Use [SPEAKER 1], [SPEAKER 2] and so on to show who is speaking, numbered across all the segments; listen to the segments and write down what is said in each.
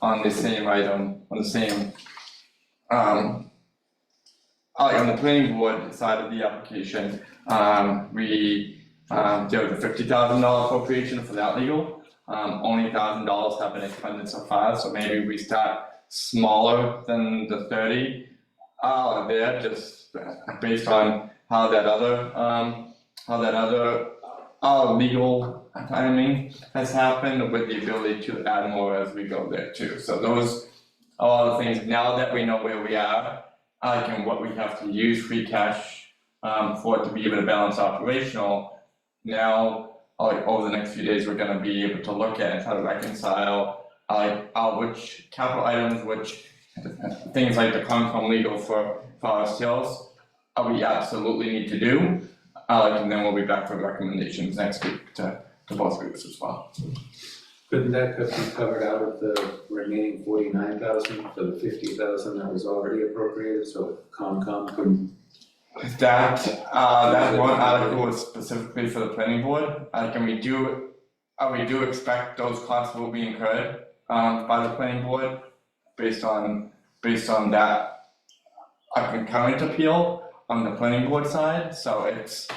[SPEAKER 1] on the same item, on the same, um, uh, like on the planning board side of the application, um, we, um, there was a fifty thousand dollar appropriation for that legal. Um, only thousand dollars have been expended so far, so maybe we start smaller than the thirty out there, just based on how that other, um, how that other, uh, legal timing has happened with the ability to add more as we go there too. So those are all the things, now that we know where we are, like, and what we have to use free cash, um, for it to be able to balance operational, now, like, over the next few days, we're gonna be able to look at and try to reconcile, like, uh, which capital items, which things like the Concom legal for Forest Hills, uh, we absolutely need to do. Uh, like, and then we'll be back for recommendations next week to, to both groups as well.
[SPEAKER 2] Couldn't that have been covered out of the remaining forty-nine thousand for the fifty thousand that was already appropriated, so Concom couldn't?
[SPEAKER 1] That, uh, that one article was specifically for the planning board, uh, can we do, uh, we do expect those costs will be incurred, um, by the planning board based on, based on that uh, concurrent appeal on the planning board side, so it's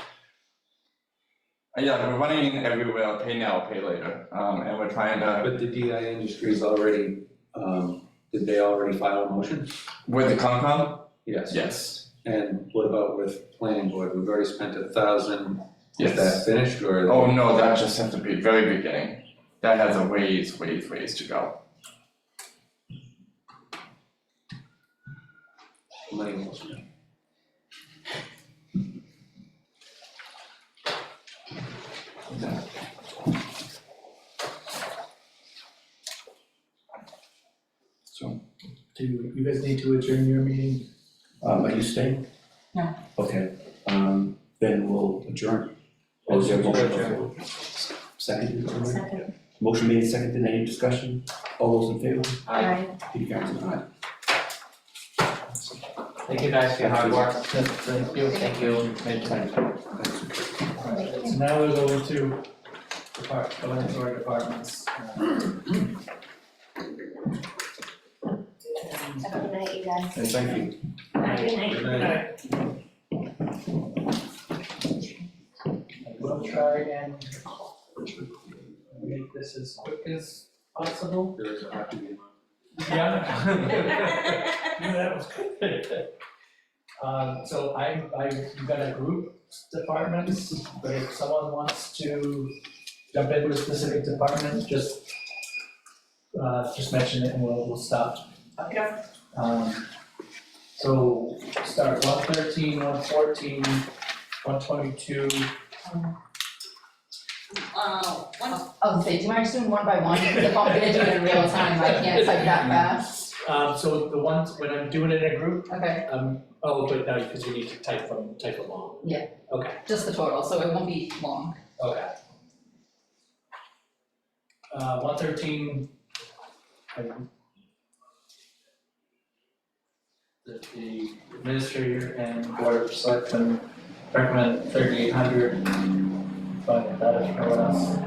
[SPEAKER 1] uh, yeah, we're running everywhere, pay now, pay later, um, and we're trying to
[SPEAKER 2] But the DI Industries already, um, did they already file a motion?
[SPEAKER 1] With the Concom?
[SPEAKER 2] Yes.
[SPEAKER 1] Yes.
[SPEAKER 2] And what about with planning board? We've already spent a thousand. Is that
[SPEAKER 1] Yes.
[SPEAKER 2] finished or?
[SPEAKER 1] Oh, no, that just has to be very beginning. That has a ways, ways, ways to go.
[SPEAKER 2] Money motion.
[SPEAKER 1] So,
[SPEAKER 3] Do you guys need to adjourn your meeting?
[SPEAKER 4] Um, are you staying?
[SPEAKER 5] No.
[SPEAKER 4] Okay, um, then we'll adjourn. Or is there a motion before? Second,
[SPEAKER 5] Second.
[SPEAKER 4] motion made, seconded, any discussion? All those in favor?
[SPEAKER 5] Aye.
[SPEAKER 4] Peter Karen's an aye.
[SPEAKER 6] Thank you guys for your hard work. Thank you. Thank you.
[SPEAKER 3] Alright, so now we're going to depart, going into our departments. Uh,
[SPEAKER 5] Have a good night, you guys.
[SPEAKER 4] Hey, thank you.
[SPEAKER 5] Good night.
[SPEAKER 2] Good night.
[SPEAKER 3] I will try and make this as quick as possible.
[SPEAKER 2] There is a happy ending.
[SPEAKER 3] Yeah. Yeah, that was good. Um, so I, I, you've got a group departments, but if someone wants to jump into a specific department, just uh, just mention it and we'll, we'll stop.
[SPEAKER 5] Okay.
[SPEAKER 3] Um, so start one thirteen, one fourteen, one twenty-two,
[SPEAKER 7] Uh, one,
[SPEAKER 5] Oh, so do you mind just doing one by one, because if I'm gonna do it in real time, I can't type that fast,
[SPEAKER 3] um, so the ones, when I'm doing it in a group,
[SPEAKER 5] okay,
[SPEAKER 3] um, oh, but now, because you need to type them, type them all.
[SPEAKER 5] just the total, so it won't be long.
[SPEAKER 3] Okay. Uh, one thirteen. The, the administrator and board of selectmen recommend thirty-eight hundred, but that is for us.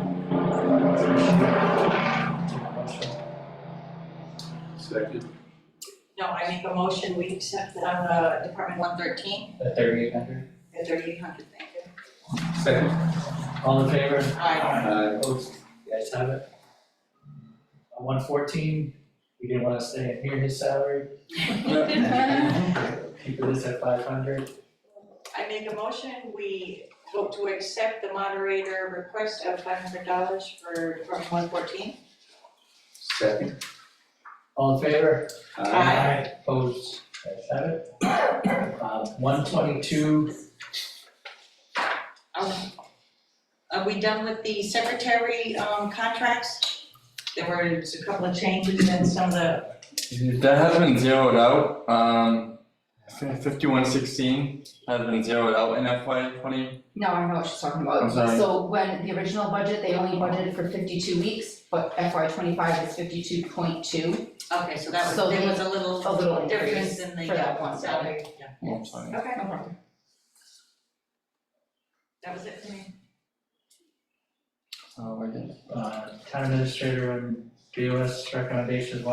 [SPEAKER 2] Second.
[SPEAKER 7] no, I make a motion, we accept it on uh Department one thirteen,
[SPEAKER 3] The thirty-eight hundred,
[SPEAKER 7] the thirty-eight hundred, thank you.
[SPEAKER 2] Second.
[SPEAKER 3] all in favor?
[SPEAKER 7] Aye.
[SPEAKER 2] Uh,
[SPEAKER 3] Opposed, you guys have it. Uh, One fourteen, we didn't wanna stay and hear his salary, keep this at five hundred.
[SPEAKER 7] I make a motion, we vote to accept the moderator request of five hundred dollars for Department one fourteen.
[SPEAKER 2] second.
[SPEAKER 3] All in favor?
[SPEAKER 7] Aye.
[SPEAKER 3] Opposed? Ayes have it. Uh, one twenty-two,
[SPEAKER 7] Um, are we done with the secretary um contracts? There were just a couple of changes and some of the,
[SPEAKER 1] that has been zeroed out, um, fifty-one sixteen has been zeroed out in FY twenty.
[SPEAKER 5] No, I know what she's talking about.
[SPEAKER 1] I'm sorry.
[SPEAKER 5] So when the original budget, they only budgeted for fifty-two weeks, but FY twenty-five is fifty-two point two,
[SPEAKER 7] okay, so that
[SPEAKER 5] So
[SPEAKER 7] was, there
[SPEAKER 5] the-
[SPEAKER 7] was a little
[SPEAKER 5] a little increase
[SPEAKER 7] difference in the
[SPEAKER 5] for that
[SPEAKER 7] uh,
[SPEAKER 5] one.
[SPEAKER 7] salary, yeah.
[SPEAKER 1] Oh, sorry.
[SPEAKER 7] Okay,
[SPEAKER 5] No problem.
[SPEAKER 7] that was it for me.
[SPEAKER 1] Oh, I did Oh,
[SPEAKER 3] uh, town administrator and BOS recommendations,